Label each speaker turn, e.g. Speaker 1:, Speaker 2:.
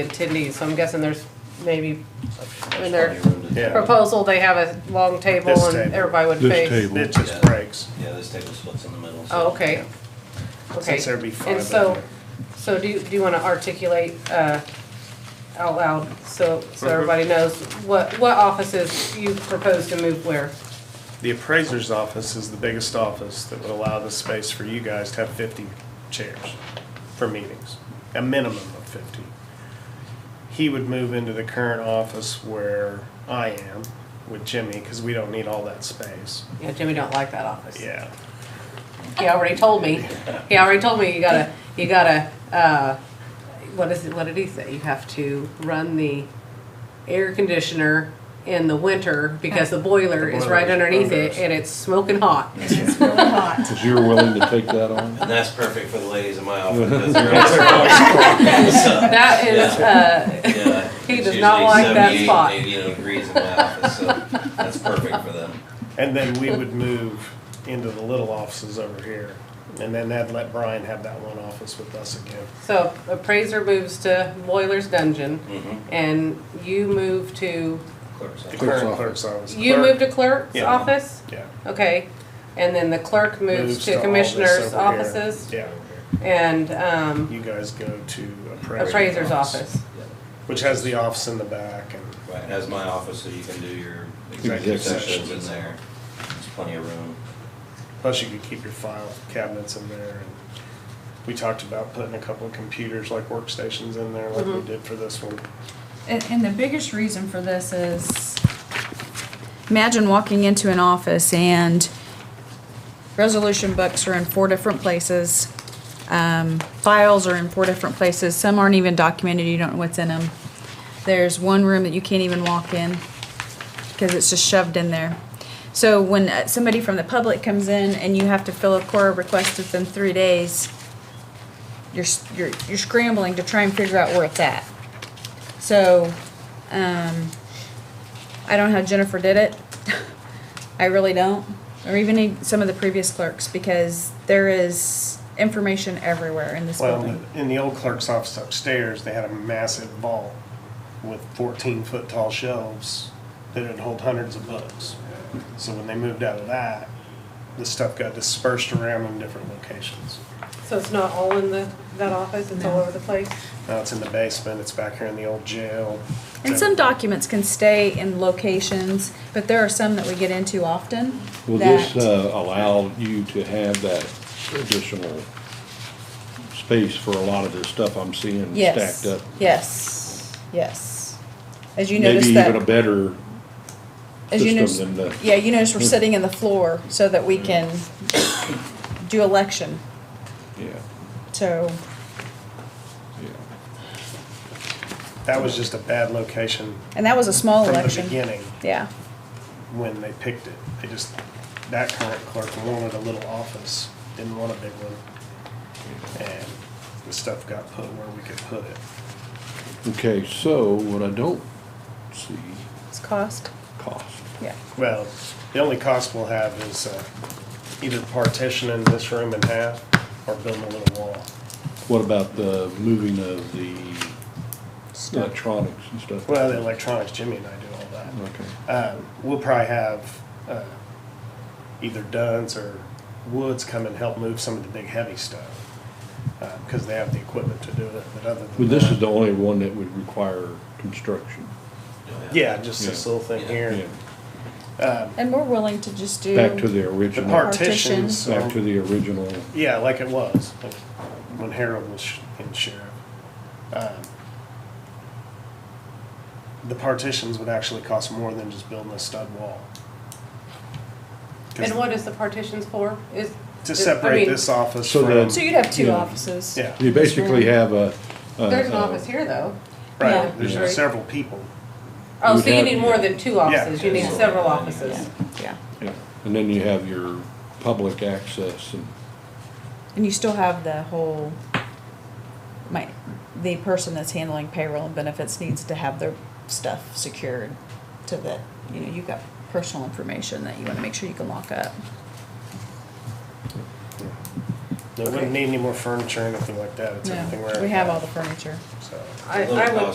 Speaker 1: attendees, so I'm guessing there's maybe, I mean, their
Speaker 2: Yeah,
Speaker 1: proposal, they have a long table
Speaker 2: This
Speaker 1: and
Speaker 2: table.
Speaker 1: everybody would
Speaker 3: This
Speaker 1: face.
Speaker 3: table.
Speaker 2: it just breaks.
Speaker 4: Yeah, this table splits in the middle. so-
Speaker 1: Oh, okay, okay.
Speaker 2: Since there'd be five
Speaker 1: And
Speaker 2: of
Speaker 1: so,
Speaker 2: them.
Speaker 1: so do you, do you wanna articulate, uh, out loud, so,
Speaker 2: Mm-hmm.
Speaker 1: so everybody knows what, what offices you propose to move where?
Speaker 2: The appraiser's office is the biggest office that would allow the space for you guys to have fifty chairs for meetings, a minimum of fifty. He would move into the current office where I am with Jimmy, because we don't need all that space.
Speaker 1: Yeah, Jimmy don't like that office.
Speaker 2: Yeah,
Speaker 1: He already told me, he already told me you gotta, you gotta, uh, what is it, what did he say? You have to run the air conditioner in the winter because the boiler is right
Speaker 2: boiler is
Speaker 1: underneath it
Speaker 2: underneath.
Speaker 1: and it's smoking hot.
Speaker 5: It's really hot.
Speaker 3: Because you were willing to take that on?
Speaker 4: And that's perfect for the ladies in my office. because they're all so-
Speaker 1: That is, uh,
Speaker 4: Yeah,
Speaker 1: He
Speaker 4: it's
Speaker 1: does not
Speaker 4: usually
Speaker 1: like that
Speaker 4: 78,
Speaker 1: spot.
Speaker 4: 80, you know, degrees in my office, so that's perfect for them.
Speaker 2: and then we would move into the little offices over here, and then that'd let Brian have that one office with us again.
Speaker 1: so appraiser moves to boiler's dungeon
Speaker 4: Mhm.
Speaker 1: and you move to,
Speaker 4: Clerk's
Speaker 2: The
Speaker 4: office.
Speaker 3: Clerk's
Speaker 2: current
Speaker 3: office.
Speaker 2: clerk's office.
Speaker 1: you
Speaker 2: Clerk-
Speaker 1: move to clerk's
Speaker 2: Yeah.
Speaker 1: office?
Speaker 2: Yeah.
Speaker 1: Okay, and then the clerk moves to
Speaker 2: all this
Speaker 1: commissioner's
Speaker 2: over here.
Speaker 1: offices
Speaker 2: Yeah,
Speaker 1: and, um,
Speaker 2: you guys go to appraiser's.
Speaker 1: appraiser's office.
Speaker 4: Yeah.
Speaker 2: Which has the office in the back and,
Speaker 4: Right, as my office, so you can do your executive
Speaker 3: Executive
Speaker 4: sessions in
Speaker 2: sessions.
Speaker 4: there. There's plenty of room.
Speaker 2: plus you could keep your file cabinets in there. and We talked about putting a couple of computers, like workstations in there, like we did for this one.
Speaker 5: And, and the biggest reason for this is, imagine walking into an office and resolution books are in four different places. Um, files are in four different places. Some aren't even documented. You don't know what's in them. There's one room that you can't even walk in because it's just shoved in there. So when uh, somebody from the public comes in and you have to fill a core request within three days, you're, s- you're, you're scrambling to try and figure out where it's at. So, um, I don't know how Jennifer did it. I really don't. Or even in some of the previous clerks, because there is information everywhere in this
Speaker 2: Well,
Speaker 5: building.
Speaker 2: in the old clerk's office upstairs, they had a massive vault with fourteen foot tall shelves that would hold hundreds of books. So when they moved out of that, the stuff got dispersed around in different locations.
Speaker 1: So it's not all in the, that office, it's all over the place?
Speaker 2: Now it's in the basement, it's back here in the old jail.
Speaker 5: And some documents can stay in locations, but there are some that we get into often
Speaker 3: Will this
Speaker 5: that-
Speaker 3: uh, allow you to have that additional space for a lot of this stuff I'm seeing
Speaker 5: Yes,
Speaker 3: stacked up?
Speaker 5: yes, yes. As you
Speaker 3: Maybe
Speaker 5: notice
Speaker 3: even a
Speaker 5: that,
Speaker 3: better,
Speaker 5: as you
Speaker 3: system
Speaker 5: notice,
Speaker 3: than the-
Speaker 5: yeah, you notice we're sitting in the floor so that we can do election,
Speaker 3: yeah,
Speaker 5: so.
Speaker 3: yeah.
Speaker 2: That was just a bad location
Speaker 5: And that was a small
Speaker 2: from the
Speaker 5: election.
Speaker 2: beginning
Speaker 5: Yeah.
Speaker 2: when they picked it. They just, that current clerk wanted a little office, didn't want a big one. And the stuff got put where we could put it.
Speaker 3: Okay, so what I don't see,
Speaker 5: It's cost.
Speaker 3: cost.
Speaker 5: Yeah.
Speaker 2: Well, the only cost we'll have is uh, either partitioning this room in half or building a little wall.
Speaker 3: What about the moving of the electronics and stuff?
Speaker 2: Well, the electronics, Jimmy and I do all that.
Speaker 3: Okay,
Speaker 2: Um, We'll probably have uh, either Dunn's or Woods come and help move some of the big heavy stuff, because they have the equipment to do it, but other than
Speaker 3: well, this is
Speaker 2: that-
Speaker 3: the only one that would require construction.
Speaker 2: Yeah, just this
Speaker 3: Yeah.
Speaker 2: little thing
Speaker 3: Yeah.
Speaker 2: here.
Speaker 5: And we're willing to just do.
Speaker 3: Back to the
Speaker 2: The
Speaker 3: original.
Speaker 2: partitions,
Speaker 3: Back to
Speaker 2: are-
Speaker 3: the original,
Speaker 2: yeah, like it was, like when Harold was sh- in sheriff. Um, The partitions would actually cost more than just building a stud wall. 'Cause
Speaker 1: And what is the partitions for? Is,
Speaker 2: To
Speaker 1: is- I
Speaker 2: separate
Speaker 1: mean,
Speaker 2: this office
Speaker 3: So
Speaker 2: from,
Speaker 3: the-
Speaker 5: So you'd have two
Speaker 3: Yeah.
Speaker 5: offices.
Speaker 2: yeah,
Speaker 3: you basically have a. a-
Speaker 1: There's an
Speaker 3: a-
Speaker 1: office here, though.
Speaker 5: yeah.
Speaker 2: right,
Speaker 1: Right.
Speaker 2: there's several people.
Speaker 1: Oh,
Speaker 3: You'd
Speaker 1: so you
Speaker 3: have-
Speaker 1: need more than two offices, you need
Speaker 4: Yeah.
Speaker 1: several offices.
Speaker 5: Yeah.
Speaker 3: yeah. And then you have your public access and,
Speaker 5: And you still have the whole, my, the person that's handling payroll and benefits needs to have their stuff secured to that, you know, you've got personal information that you want to make sure you can lock up.
Speaker 2: They wouldn't need any more furniture or anything like that, it's
Speaker 5: No,
Speaker 2: everything where.
Speaker 5: We have all the furniture.
Speaker 2: So.
Speaker 1: I,
Speaker 4: Little
Speaker 1: I would